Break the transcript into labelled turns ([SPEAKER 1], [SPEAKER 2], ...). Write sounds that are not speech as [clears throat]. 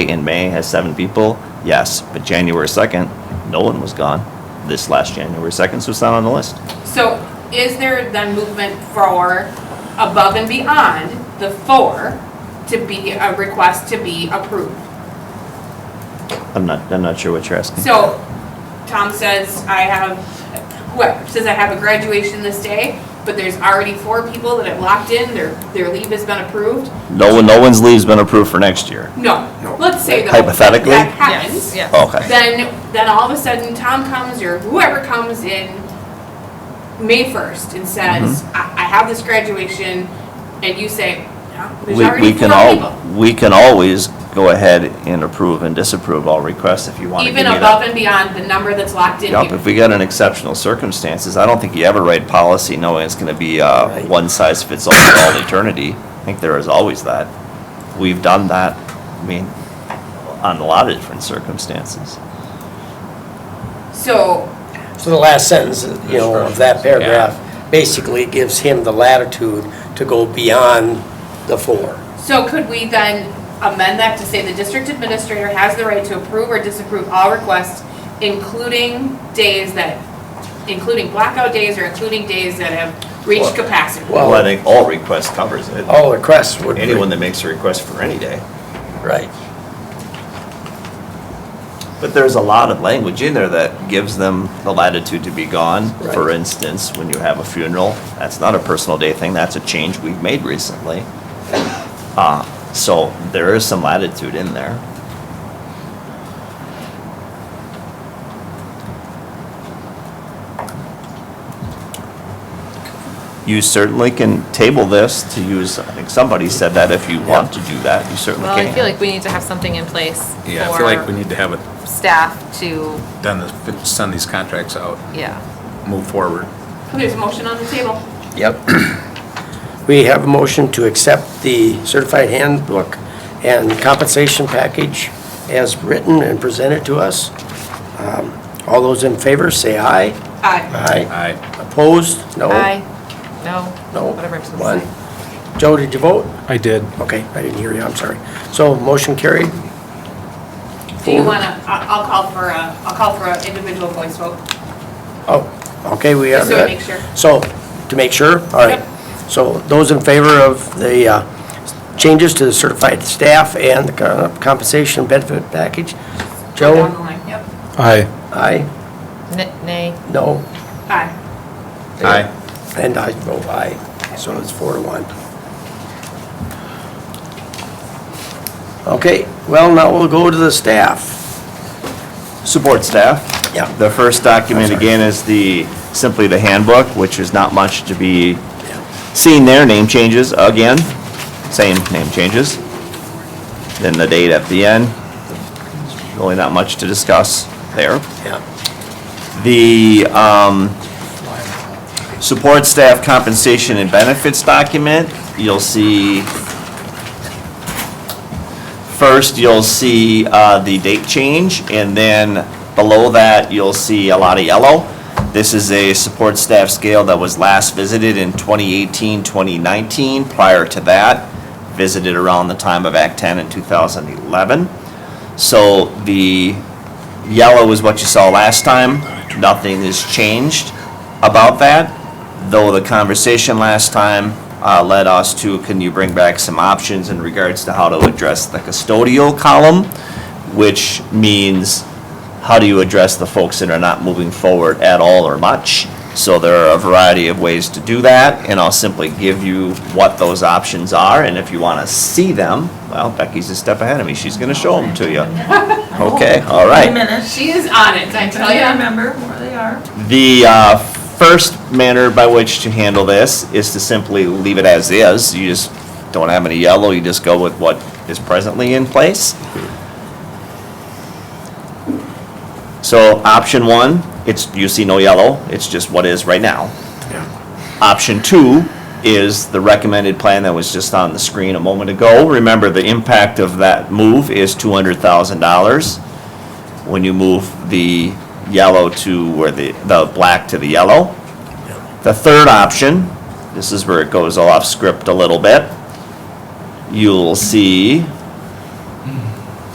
[SPEAKER 1] in May has seven people, yes, but January 2nd, Nolan was gone. This last January 2nd, so it's not on the list.
[SPEAKER 2] So is there then movement for above and beyond the four to be a request to be approved?
[SPEAKER 1] I'm not, I'm not sure what you're asking.
[SPEAKER 2] So Tom says, I have, whoever, says I have a graduation this day, but there's already four people that have locked in, their, their leave has been approved?
[SPEAKER 1] No one, no one's leave's been approved for next year.
[SPEAKER 2] No, let's say though.
[SPEAKER 1] Hypothetically?
[SPEAKER 2] That
[SPEAKER 3] Yes,
[SPEAKER 2] happens.
[SPEAKER 3] yes.
[SPEAKER 4] Oh,
[SPEAKER 1] Okay.
[SPEAKER 2] Then, then all of a sudden Tom comes or whoever comes in May first and says,
[SPEAKER 1] Mm-hmm.
[SPEAKER 2] I, I have this graduation, and you say, no, there's
[SPEAKER 1] We, we
[SPEAKER 2] already
[SPEAKER 1] can
[SPEAKER 2] four
[SPEAKER 1] all,
[SPEAKER 2] people.
[SPEAKER 1] we can always go ahead and approve and disapprove all requests if you want to give me
[SPEAKER 2] Even
[SPEAKER 1] that.
[SPEAKER 2] above and beyond the number that's locked in
[SPEAKER 1] Yep,
[SPEAKER 2] here.
[SPEAKER 1] if we got an exceptional circumstances, I don't think you ever write policy knowing it's gonna be, uh, one size fits all for all eternity. I think there is always that. We've done that, I mean, on a lot of different circumstances.
[SPEAKER 2] So,
[SPEAKER 5] So the last sentence, you know, of that paragraph basically gives him the latitude to go beyond the four.
[SPEAKER 2] so could we then amend that to say the district administrator has the right to approve or disapprove all requests, including days that, including blackout days or including days that have reached capacity?
[SPEAKER 5] Well-
[SPEAKER 1] Well, I think all requests covers it.
[SPEAKER 5] All requests would be,
[SPEAKER 1] Anyone that makes a request for any day.
[SPEAKER 5] right.
[SPEAKER 1] But there's a lot of language in there that gives them the latitude to be gone. For
[SPEAKER 5] Right.
[SPEAKER 1] instance, when you have a funeral, that's not a personal day thing, that's a change we've made recently. Uh, so there is some latitude in there. You certainly can table this to use, I think somebody said that if you want to do that, you certainly
[SPEAKER 3] Well,
[SPEAKER 1] can.
[SPEAKER 3] I feel like we need to have something in place
[SPEAKER 4] Yeah, I feel like we
[SPEAKER 3] for
[SPEAKER 4] need to have it
[SPEAKER 3] staff to,
[SPEAKER 4] done, to send these contracts out,
[SPEAKER 3] yeah.
[SPEAKER 4] move forward.
[SPEAKER 2] There's a motion on the table.
[SPEAKER 5] Yep. [clears throat] We have a motion to accept the certified handbook and compensation package as written and presented to us. Um, All those in favor, say aye.
[SPEAKER 2] Aye.
[SPEAKER 5] Aye.
[SPEAKER 4] Aye.
[SPEAKER 5] Opposed? No.
[SPEAKER 3] Aye, no,
[SPEAKER 5] No.
[SPEAKER 3] whatever I'm supposed
[SPEAKER 5] One.
[SPEAKER 3] to say.
[SPEAKER 5] Joe, did you vote?
[SPEAKER 6] I did.
[SPEAKER 5] Okay, I didn't hear you, I'm sorry. So motion carried?
[SPEAKER 2] Do you wanna, I- I'll call for a, I'll call for an individual voice vote.
[SPEAKER 5] Oh, okay, we have
[SPEAKER 2] Just so
[SPEAKER 5] that.
[SPEAKER 2] we make sure.
[SPEAKER 5] So, to make sure, all right.
[SPEAKER 2] Yep.
[SPEAKER 5] So those in favor of the uh, changes to the certified staff and the co- compensation benefit package?
[SPEAKER 2] Go down the
[SPEAKER 5] Joe?
[SPEAKER 2] line. Yep.
[SPEAKER 6] I,
[SPEAKER 5] Aye?
[SPEAKER 3] N- Nay,
[SPEAKER 5] No?
[SPEAKER 2] Aye.
[SPEAKER 4] Aye.
[SPEAKER 5] And I vote aye. So it's four to one. Okay, well, now we'll go to the staff.
[SPEAKER 1] support staff.
[SPEAKER 5] Yeah.
[SPEAKER 1] The first document again is the, simply the handbook, which is not much to be seen there, name changes again, same name changes. Then the date at the end, really not much to discuss there.
[SPEAKER 5] Yeah.
[SPEAKER 1] The um, support staff compensation and benefits document, you'll see, first, you'll see uh, the date change, and then below that, you'll see a lot of yellow. This is a support staff scale that was last visited in 2018, 2019. Prior to that, visited around the time of Act 10 in 2011. So the yellow is what you saw last time. Nothing has changed about that, though the conversation last time uh, led us to, can you bring back some options in regards to how to address the custodial column? Which means, how do you address the folks that are not moving forward at all or much? So there are a variety of ways to do that, and I'll simply give you what those options are, and if you want to see them, well, Becky's a step ahead of me, she's going to show them to you. Okay, all right.
[SPEAKER 7] Wait a minute.
[SPEAKER 2] She is on it, I tell
[SPEAKER 7] I
[SPEAKER 2] ya.
[SPEAKER 7] can't remember where they are.
[SPEAKER 1] The uh, first manner by which to handle this is to simply leave it as is. You just don't have any yellow, you just go with what is presently in place. So option one, it's, you see no yellow, it's just what is right now. Option two is the recommended plan that was just on the screen a moment ago. Remember, the impact of that move is two hundred thousand dollars when you move the yellow to, or the, the black to the yellow. The third option, this is where it goes off script a little bit. You'll see